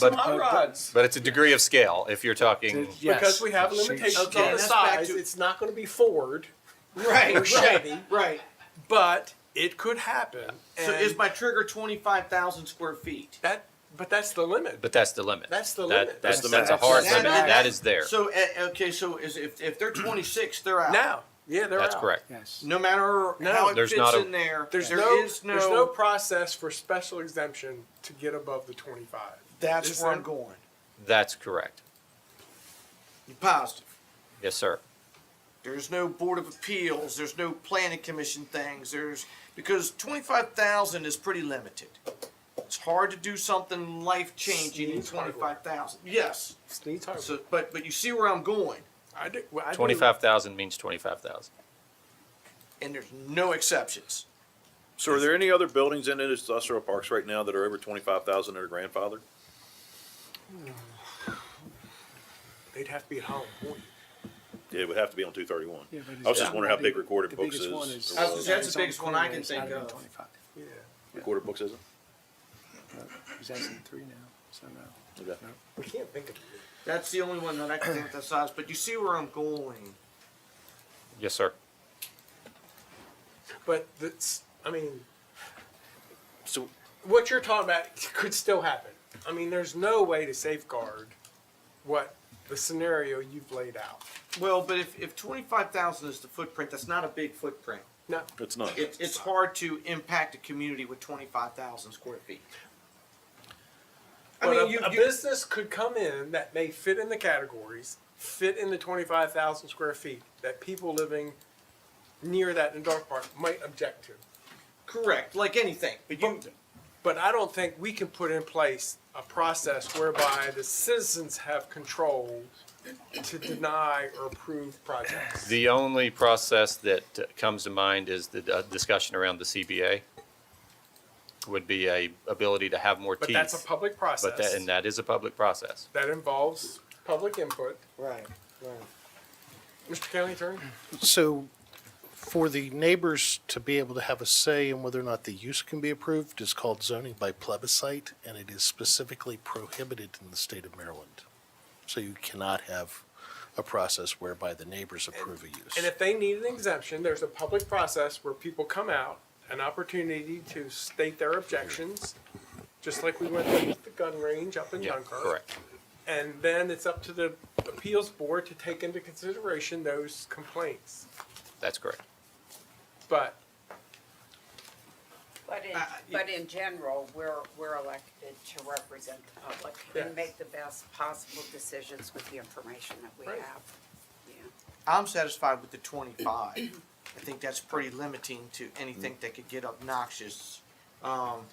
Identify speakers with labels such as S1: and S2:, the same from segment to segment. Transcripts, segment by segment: S1: But-
S2: some hot rods.
S1: But it's a degree of scale if you're talking.
S3: Yes.
S2: Because we have limitations
S3: Okay,
S2: on the
S3: that's
S4: back
S2: size,
S4: to-
S2: it's not gonna be Ford
S4: Right,
S2: or Chevy,
S4: right.
S2: but it could happen.
S4: So
S2: And
S4: is my trigger twenty-five thousand square feet?
S2: that, but that's the limit.
S1: But that's the limit.
S2: That's the
S1: That-
S2: limit.
S1: That's,
S3: That's the
S1: that's a
S3: maximum.
S1: hard
S3: That-
S1: limit. that is there.
S4: So, eh, okay, so is, if, if they're twenty-six, they're out.
S2: Now, yeah, they're
S1: That's
S2: out.
S1: correct.
S3: Yes.
S4: No matter
S2: No,
S4: how it
S1: there's
S4: fits
S1: not a-
S4: in there, there
S2: There's
S4: is
S2: no, there's no
S4: no,
S2: process for special exemption to get above the twenty-five.
S4: that's
S2: Is
S4: where
S2: there-
S4: I'm going.
S1: That's correct.
S4: You positive.
S1: Yes, sir.
S4: There's no board of appeals, there's no planning commission things, there's, because twenty-five thousand is pretty limited. It's hard to do something life-changing in
S2: Sneeze hardware.
S4: twenty-five thousand, yes,
S2: Sneed's hardware.
S4: so, but, but you see where I'm going,
S2: I do, well, I do-
S1: Twenty-five thousand means twenty-five thousand.
S4: and there's no exceptions.
S5: So are there any other buildings in industrial parks right now that are over twenty-five thousand that are grandfathered?
S2: They'd have to be at home. wouldn't it?
S5: Yeah, It would have to be on two thirty-one.
S3: Yeah, but it's
S5: I was just
S3: not
S5: wondering how big
S3: big.
S5: Recorder
S3: The
S5: Books
S3: biggest one
S5: is.
S3: is-
S5: or
S4: I was
S5: was.
S4: gonna say, that's the biggest one I can
S3: It's not
S4: think
S3: even
S4: of.
S3: 25.
S2: Yeah,
S5: Recorder Books isn't?
S3: He's asking three now, so uh, no.
S5: Okay.
S2: we can't think of it.
S4: That's the only one that I can think that size, but you see where I'm going.
S1: Yes, sir.
S2: But that's, I mean,
S5: So,
S2: what you're talking about could still happen. I mean, there's no way to safeguard what the scenario you've laid out.
S4: Well, but if, if twenty-five thousand is the footprint, that's not a big footprint.
S2: No,
S5: it's not.
S4: It, it's hard to impact a community with twenty-five thousand square feet. I
S2: but
S4: mean,
S2: a,
S4: you,
S2: a
S4: you-
S2: business could come in that may fit in the categories, fit in the 25,000 square feet that people living near that in Dark Park might object to.
S4: correct, like anything, but you,
S2: But I don't think we can put in place a process whereby the citizens have control to deny or approve projects.
S1: The only process that uh, comes to mind is the uh, discussion around the CBA. Would be a ability to have more
S2: But
S1: teeth.
S2: that's a public process.
S1: But that, and that is a public process.
S2: That involves public input.
S4: right, right.
S2: Mr. County Attorney?
S6: So for the neighbors to be able to have a say in whether or not the use can be approved is called zoning by plebiscite, and it is specifically prohibited in the state of Maryland. So you cannot have a process whereby the neighbors approve a
S2: And
S6: use.
S2: if they need an exemption, there's a public process where people come out, an opportunity to state their objections, just like we went to the gun range up in
S1: Yeah,
S2: Dunkirk.
S1: correct.
S2: And then it's up to the appeals board to take into consideration those complaints.
S1: That's correct.
S2: But
S7: But in,
S4: Uh,
S7: but in general, we're, we're elected to represent the public
S2: Yes.
S7: and make the best possible decisions with the information that we
S2: Right.
S7: have. Yeah.
S4: I'm satisfied with the twenty-five. I think that's pretty limiting to anything that could get obnoxious. Um,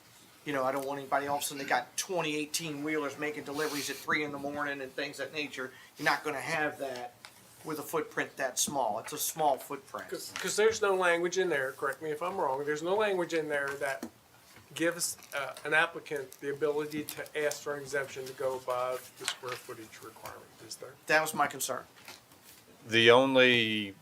S4: you know, I don't want anybody all of a sudden they got twenty eighteen wheelers making deliveries at three in the morning and things of that nature. You're not gonna have that with a footprint that small. It's a small footprint.
S2: Because there's no language in there, correct me if I'm wrong, there's no language in there that gives uh, an applicant the ability to ask for an exemption to go above the square footage requirement, is there?
S4: That was my concern.
S1: The only,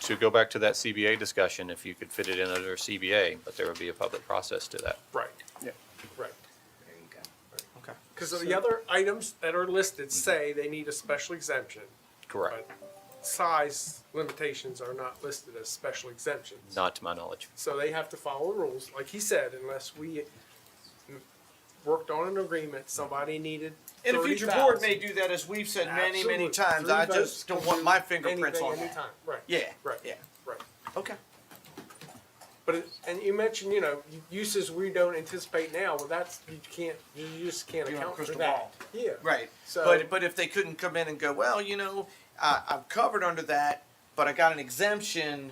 S1: to go back to that CBA discussion, if you could fit it in under CBA, but there would be a public process to that.
S2: Right.
S3: Yeah.
S2: Right.
S7: There you go.
S4: Okay.
S2: Because the other items that are listed say they need a special exemption,
S1: Correct.
S2: but size limitations are not listed as special exemptions.
S1: Not to my knowledge.
S2: So they have to follow rules, like he said, unless we worked on an agreement, somebody needed
S4: And a future board
S2: 30,000.
S4: may do that, as we've said many, many
S2: Absolutely.
S4: times.
S2: Three
S4: I
S2: votes
S4: just don't
S2: can
S4: want
S2: do
S4: my fingerprints
S2: anything,
S4: on that.
S2: anytime. Right.
S4: Yeah,
S2: Right.
S4: yeah,
S2: Right.
S4: okay.
S2: But it, and you mentioned, you know, u- uses we don't anticipate now. Well, that's you can't. You just can't
S4: You don't
S2: account
S4: have a
S2: for
S4: crystal
S2: that. Yeah.
S4: Right.
S2: So-
S4: but but if they couldn't come in and go, well, you know, I, I'm covered under that, but I got an exemption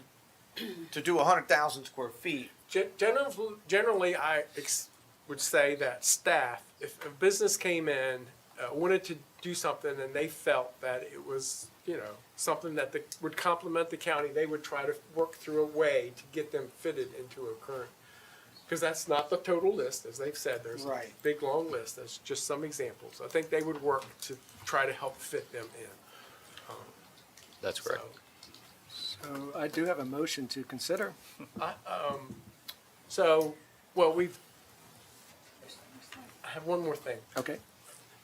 S4: to do hundred thousand square feet.
S2: Gen- generally, generally, I ex- would say that staff, if a business came in, uh, wanted to do something, and they felt that it was, you know, something that the, would complement the county, they would try to work through a way to get them fitted into a current. Because that's not the total list, as they've said. There's a
S4: Right.
S2: big long list. That's just some examples. I think they would work to try to help fit them in.
S1: That's correct.
S2: So-
S3: So I do have a motion to consider.
S2: So, well, we've. I have one more thing.
S3: Okay.